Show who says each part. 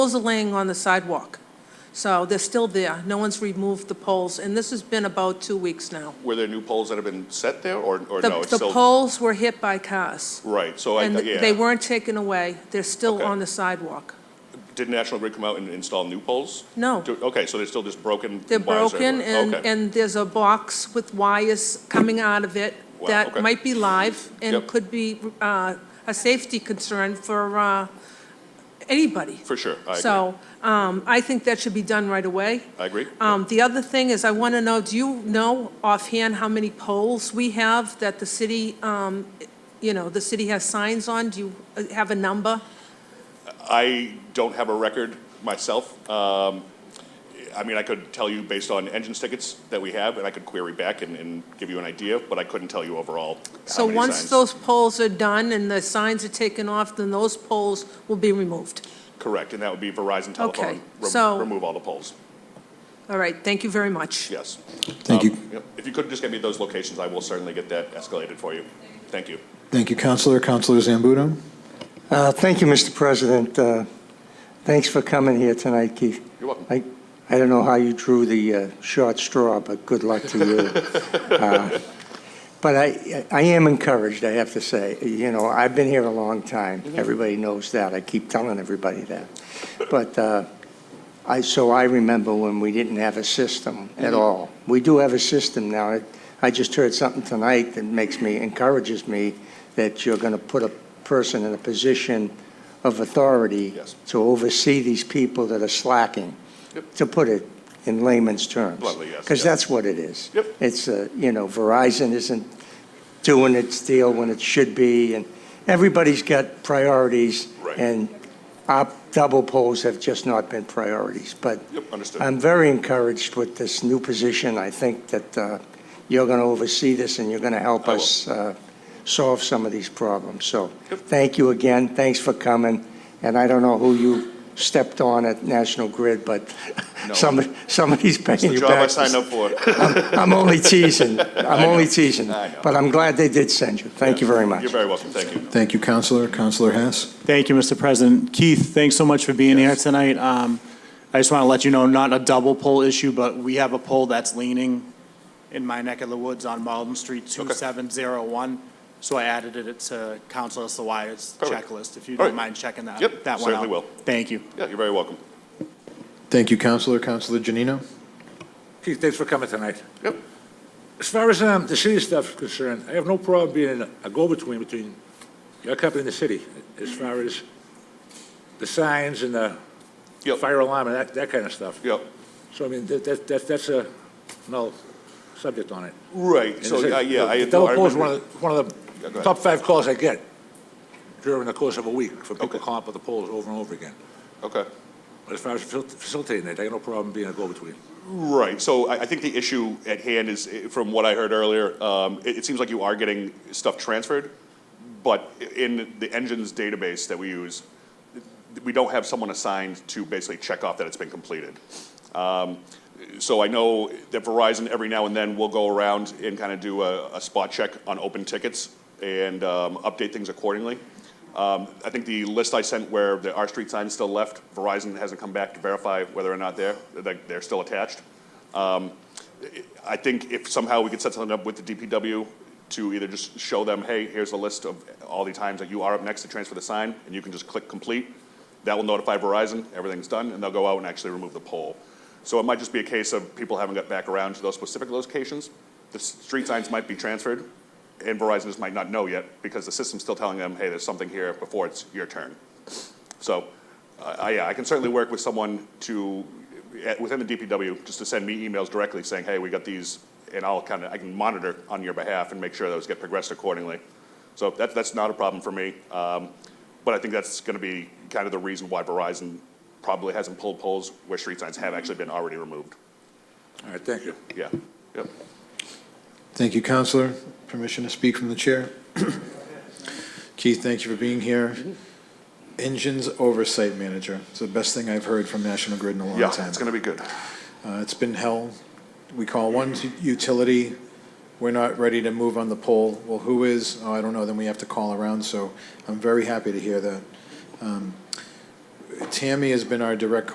Speaker 1: Poles are laying on the sidewalk, so they're still there. No one's removed the poles, and this has been about two weeks now.
Speaker 2: Were there new poles that have been set there, or, or
Speaker 1: The-
Speaker 2: no? it's
Speaker 1: The
Speaker 2: still-
Speaker 1: poles were hit by cars,
Speaker 2: Right, so I,
Speaker 1: and they
Speaker 2: yeah.
Speaker 1: weren't taken away. They're still
Speaker 2: Okay.
Speaker 1: on the sidewalk.
Speaker 2: Did National Grid come out and install new poles?
Speaker 1: No.
Speaker 2: Do- Okay, so they're still just broken
Speaker 1: They're
Speaker 2: wires
Speaker 1: broken,
Speaker 2: everywhere.
Speaker 1: and,
Speaker 2: Okay.
Speaker 1: and there's a box with wires coming out of it
Speaker 2: Wow, okay.
Speaker 1: that might be live and
Speaker 2: Yep.
Speaker 1: could be uh, a safety concern for uh, anybody.
Speaker 2: For sure, I agree.
Speaker 1: So um, I think that should be done right away.
Speaker 2: I agree.
Speaker 1: Um, The other thing is, I want to know, do you know offhand how many poles we have that the city, um, you know, the city has signs on? Do you uh, have a number?
Speaker 2: I don't have a record myself. Um, I mean, I could tell you based on engines tickets that we have, and I could query back and, and give you an idea, but I couldn't tell you overall
Speaker 1: So
Speaker 2: how many
Speaker 1: once
Speaker 2: signs.
Speaker 1: those poles are done and the signs are taken off, then those poles will be removed.
Speaker 2: Correct, and that would be Verizon Telephone. re-
Speaker 1: so-
Speaker 2: Remove all the poles,
Speaker 1: All right, thank you very much.
Speaker 2: yes.
Speaker 3: Thank you.
Speaker 2: Um, yep. If you could just get me those locations, I will certainly get that escalated for you. Thank you.
Speaker 3: Thank you, Counselor. Counselor Zambudo?
Speaker 4: Uh, Thank you, Mr. President. Uh, Thanks for coming here tonight, Keith.
Speaker 2: You're welcome.
Speaker 4: I I don't know how you drew the uh, short straw, but good luck to you. Uh, But I I am encouraged, I have to say. You know, I've been here a long time. Everybody knows that. I keep telling everybody that. But uh, I, so I remember when we didn't have a system at
Speaker 2: Mm-hmm.
Speaker 4: all. We do have a system now. I- I just heard something tonight that makes me, encourages me that you're going to put a person in a position of authority
Speaker 2: Yes.
Speaker 4: to oversee these people that are slacking,
Speaker 2: Yep.
Speaker 4: to put it in layman's terms.
Speaker 2: Bluntly, yes,
Speaker 4: Because
Speaker 2: yeah.
Speaker 4: that's what it is.
Speaker 2: Yep.
Speaker 4: It's, uh, you know, Verizon isn't doing its deal when it should be, and everybody's got priorities.
Speaker 2: Right.
Speaker 4: And our double poles have just not been priorities. But
Speaker 2: Yep, understood.
Speaker 4: I'm very encouraged with this new position. I think that uh, you're going to oversee this, and you're going to help
Speaker 2: I will.
Speaker 4: us uh, solve some of these problems. So
Speaker 2: Yep.
Speaker 4: thank you again. Thanks for coming. And I don't know who you stepped on at National Grid, but
Speaker 2: No.
Speaker 4: some- somebody's
Speaker 2: It's
Speaker 4: paying
Speaker 2: the
Speaker 4: you
Speaker 2: job I
Speaker 4: back.
Speaker 2: signed up for.
Speaker 4: I'm only teasing. I'm only teasing.
Speaker 2: I know.
Speaker 4: But I'm glad they did send you. Thank you very much.
Speaker 2: You're very welcome, thank you.
Speaker 3: Thank you, Counselor. Counselor Hess?
Speaker 5: Thank you, Mr. President. Keith, thanks so much for being here tonight. Um, I just want to let you know, not a double pole issue, but we have a pole that's leaning in my neck of the woods on Malden Street, 2701. So I added it to Counselor Sawyer's
Speaker 2: Perfect.
Speaker 5: checklist, if you
Speaker 2: All
Speaker 5: don't
Speaker 2: right.
Speaker 5: mind checking that,
Speaker 2: Yep,
Speaker 5: that one out.
Speaker 2: certainly will.
Speaker 5: Thank you.
Speaker 2: Yeah, you're very welcome.
Speaker 3: Thank you, Counselor. Counselor Janino?
Speaker 6: Keith, thanks for coming tonight.
Speaker 2: Yep.
Speaker 6: As far as um, the city staff is concerned, I have no problem being a go-between between your company and the city, as far as the signs and the
Speaker 2: Yep.
Speaker 6: fire alarm and that, that kind of stuff.
Speaker 2: Yep.
Speaker 6: So I mean, that, that, that- that's a, no, subject on it.
Speaker 2: Right,
Speaker 6: And
Speaker 2: so,
Speaker 6: it's a-
Speaker 2: uh, yeah, I.
Speaker 6: The double
Speaker 2: I
Speaker 6: poll is one
Speaker 2: remember-
Speaker 6: of, the- one of
Speaker 2: Yeah, go
Speaker 6: the
Speaker 2: ahead.
Speaker 6: top five calls I get during the course of a week, for
Speaker 2: Okay.
Speaker 6: people calling up with the polls over and over again.
Speaker 2: Okay.
Speaker 6: But as far as facil- facilitating it, I have no problem being a go-between.
Speaker 2: Right, so I, I think the issue at hand is, eh, from what I heard earlier, um, it, it seems like you are getting stuff transferred, but i- in the engines database that we use, we don't have someone assigned to basically check off that it's been completed. Um, So I know that Verizon every now and then will go around and kind of do a, a spot check on open tickets and um, update things accordingly. Um, I think the list I sent where the R Street sign is still left, Verizon hasn't come back to verify whether or not they're, that they're still attached. Um, I think if somehow we could set something up with the DPW to either just show them, hey, here's a list of all the times that you are up next to transfer the sign, and you can just click complete. That will notify Verizon, everything's done, and they'll go out and actually remove the pole. So it might just be a case of people haven't got back around to those specific locations. The s- street signs might be transferred, and Verizon just might not know yet, because the system's still telling them, hey, there's something here before it's your turn. So, I, I- yeah, I can certainly work with someone to, at- within the DPW, just to send me emails directly saying, hey, we got these, and I'll kind of, I can monitor on your behalf and make sure those get progressed accordingly. So that, that's not a problem for me. Um, But I think that's going to be kind of the reason why Verizon probably hasn't pulled polls where street signs have actually been already removed.
Speaker 6: All right, thank you.
Speaker 2: Yeah, yep.
Speaker 3: Thank you, Counselor. Permission to speak from the chair? Keith, thank you for being here. Engines Oversight Manager. It's the best thing I've heard from National Grid in a long time.
Speaker 2: Yeah, it's going to be good.
Speaker 3: Uh, It's been hell. We call one t- utility, we're not ready to move on the pole. Well, who is? Oh, I don't know, then we have to call around, so I'm very happy to hear that. Um, Tammy has been our direct